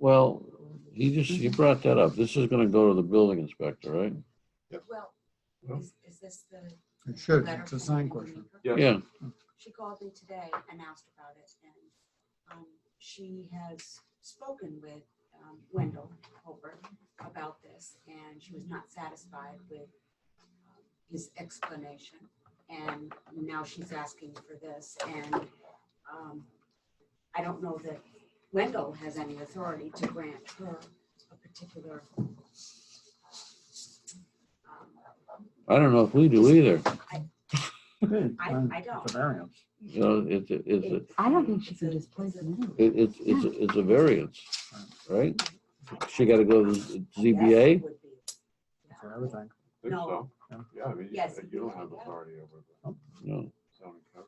Well, he just, he brought that up. This is gonna go to the building inspector, right? Well, Well. is, is this the It should, letter? it's a from sign Andy question. Meeker? Yeah. Yeah, She called me today and asked about it, and um, she has spoken with um, Wendell Holbert about this, and she was not satisfied with um, his explanation, and now she's asking for this, and um, I don't know that Wendell has any authority to grant her a particular um, I don't know if we do either. I- I don't. It's a variance. You know, it's, a- it's, a- I don't think she It's a- can just place it's a- them in. it- it's, it's, a- it's a variance, right? She gotta go to the I guess ZBA? it would be. Yeah. for everything. Think No. so? Yeah. Yeah, I mean, you- Yes, you you don't have have that. authority over the No, zoning code.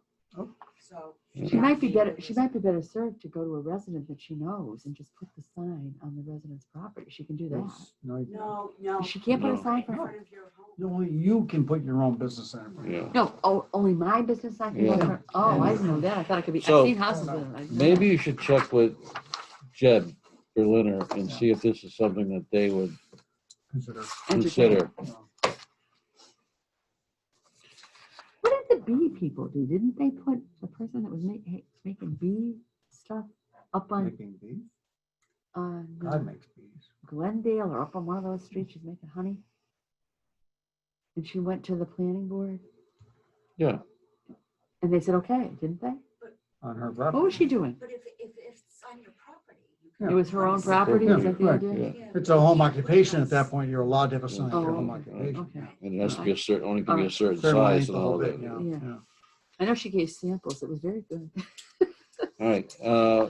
So. She might be better, she might be better served to go to a resident that she knows and just put the sign on the resident's property. She can do that. It's- No, you- No, no. She can't put No. a sign for In her. front of your home. you only- you can put your own business in. it. yeah. No, oh, only my business sign can go in Yeah. front- Oh, I didn't know that. I thought it could be, I've So, seen houses with it. I didn't know Maybe you should check with Jed Berliner and see if this is something that they would Consider, that. Entertain. consider. you know, What did the bee people do? Didn't they put the person that was making, making bee stuff up on, Making bees, on uh, God makes bees. Glendale or up on one of those streets? She's making honey? And she went to the planning board Yeah, and they said, okay, didn't they? on her What was property. she doing? But if, if, if it's on your property. you Yeah. can- It was her own property? Yeah, Is that the right. idea? yeah. Yeah. It's a home occupation at that point, you're allowed to have a sign for your home Oh, occupation. okay. And it has to be a certain, only can be a certain Fair money, size the and whole all bit, that. yeah, Yeah. yeah. I know she gave samples. It was very good. All right, uh,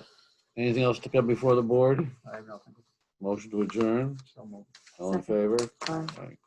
anything else to come before the board? I have nothing, Motion to adjourn, so moved. all in favor? Uh, All right.